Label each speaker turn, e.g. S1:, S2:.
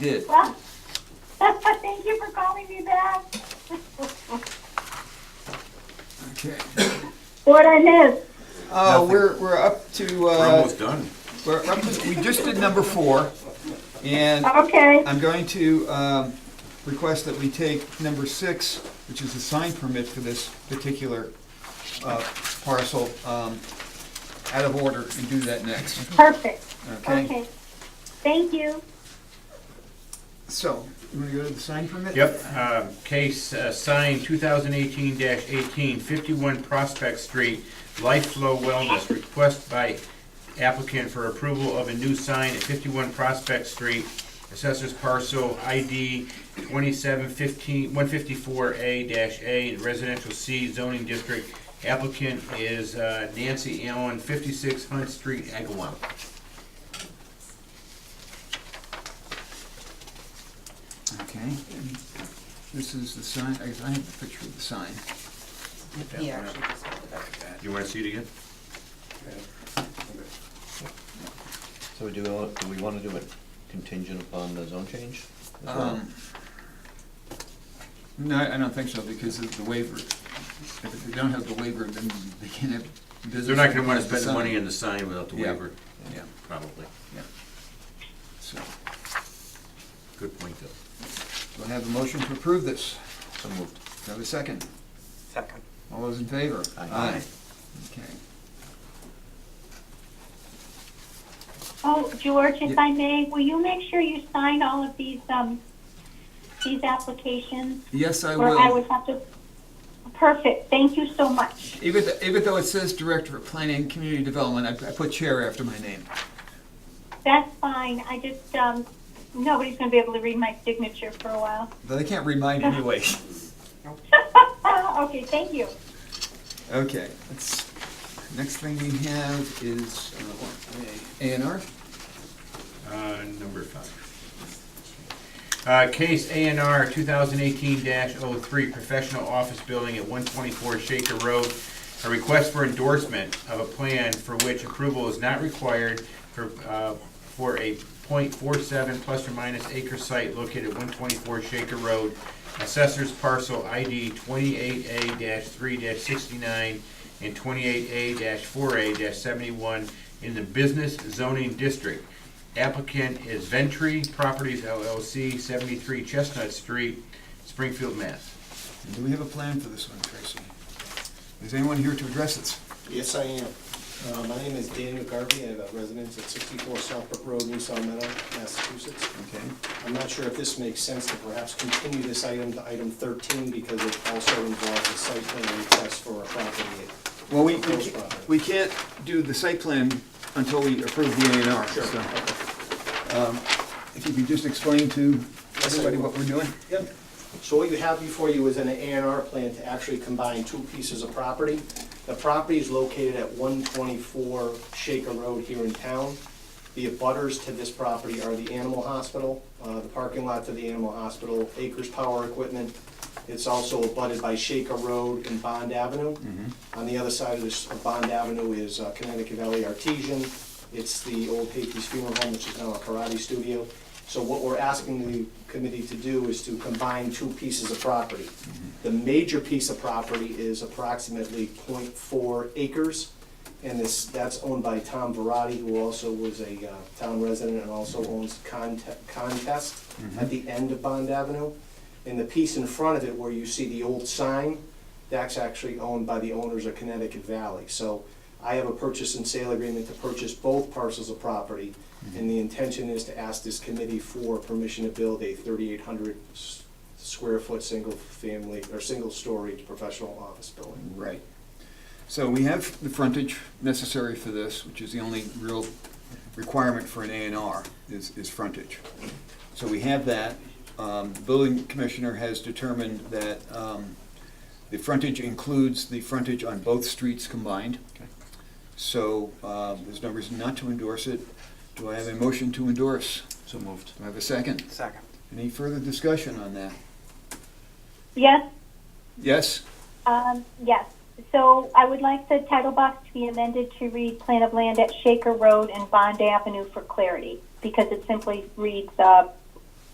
S1: did.
S2: Well, thank you for calling me back.
S3: Okay.
S2: What I missed.
S3: Uh, we're, we're up to,
S4: We're
S3: uh,
S4: almost done.
S3: we're up to, we just did number four. And
S2: Okay,
S3: I'm going to um, request that we take number six, which is the sign permit for this particular uh, parcel, um, out of order and do that next,
S2: perfect.
S3: okay?
S2: Okay. Thank you.
S3: So, you want to go to the sign permit?
S5: Yep, uh, case uh, signed 2018-18, 51 Prospect Street, Life Flow Wellness, request by applicant for approval of a new sign at 51 Prospect Street, assessors parcel ID 2715, 154A-A, residential C zoning district. Applicant is uh, Nancy Allen, 56 Hunt Street, Agawam.
S3: Okay. and This is the sign, I guess I have the picture of the sign.
S6: He actually just handed it out.
S5: You want to see it again?
S7: So we do, do we want to do it contingent upon the zone change? as well?
S3: Um, No, I don't think so, because of the waiver. If they don't have the waiver, then they can't have business.
S5: They're not going to want to spend the
S3: sign.
S5: money on the sign without the
S3: Yeah.
S5: waiver,
S3: Yeah,
S5: probably.
S3: so,
S5: Good point, though.
S3: do I have a motion to approve this?
S7: So moved.
S3: Do I have a second?
S6: Second.
S3: All those in favor?
S7: Aye.
S3: Okay.
S2: Oh, George, if
S3: Yeah.
S2: I may, will you make sure you sign all of these, um, these applications?
S3: Yes, I
S2: Or I
S3: will.
S2: would have to, perfect. Thank you so much.
S3: Even, th- even though it says Director of Planning and Community Development, I I put Chair after my name.
S2: That's fine. I just, um, nobody's gonna be able to read my signature for a while.
S3: But I can't remind anyway.
S2: Okay, thank you.
S3: Okay, let's, next thing we have is, uh, what, A and R?
S5: Uh, Number five. Uh, Case ANR 2018-03, professional office building at 124 Shaker Road. A request for endorsement of a plan for which approval is not required for, uh, for a .47 plus or minus acre site located at 124 Shaker Road. Assessors parcel ID 28A-3-69 and 28A-4A-71 in the business zoning district. Applicant is Ventry Properties LLC, 73 Chestnut Street, Springfield, Mass.
S3: Do we have a plan for this one, Tracy? Is anyone here to address this?
S8: Yes, I am. Uh, My name is Dan McGarvey, I'm a resident at 64 Southbrook Road, New Salem Meadow, Massachusetts.
S3: Okay.
S8: I'm not sure if this makes sense to perhaps continue this item to item 13 because it also involves a site plan request for a property.
S3: Well, we, we
S8: Proposed
S3: ca-
S8: property.
S3: we can't do the site plan until we approve the A and R, so. um, If you could just explain to
S8: I
S3: everybody what we're doing?
S8: Yep. So what you have before you is an A and R plan to actually combine two pieces of property. The property is located at one twenty-four Shaker Road here in town. The abutters to this property are the animal hospital, uh, the parking lot to the animal hospital, Acres Power Equipment. It's also abutted by Shaker Road and Bond Avenue. On the other side of this, of Bond Avenue is uh, Connecticut Valley Artesian. It's the old Patriot Funeral Home, which is now a karate studio. So what we're asking the committee to do is to combine two pieces of property. The major piece of property is approximately 0.4 acres, and this, that's owned by Tom Verratti, who also was a uh, town resident and also owns Conte- Contest at the end of Bond Avenue. And the piece in front of it where you see the old sign, that's actually owned by the owners of Connecticut Valley. So I have a purchase and sale agreement to purchase both parcels of property, and the intention is to ask this committee for permission to build a thirty-eight hundred square foot, single family, or single story professional office building.
S3: Right. So we have the frontage necessary for this, which is the only real requirement for an A and R, is, is frontage. So we have that. Um, The building commissioner has determined that um, the frontage includes the frontage on both streets combined. So uh, there's no reason not to endorse it. Do I have a motion to endorse?
S7: So moved.
S3: Do I have a second?
S6: Second.
S3: Any further discussion on that?
S2: Yes,
S3: Yes?
S2: Um, yes, so I would like the title box to be amended to read plan of land at Shaker Road and Bond Avenue for clarity, because it simply reads, uh,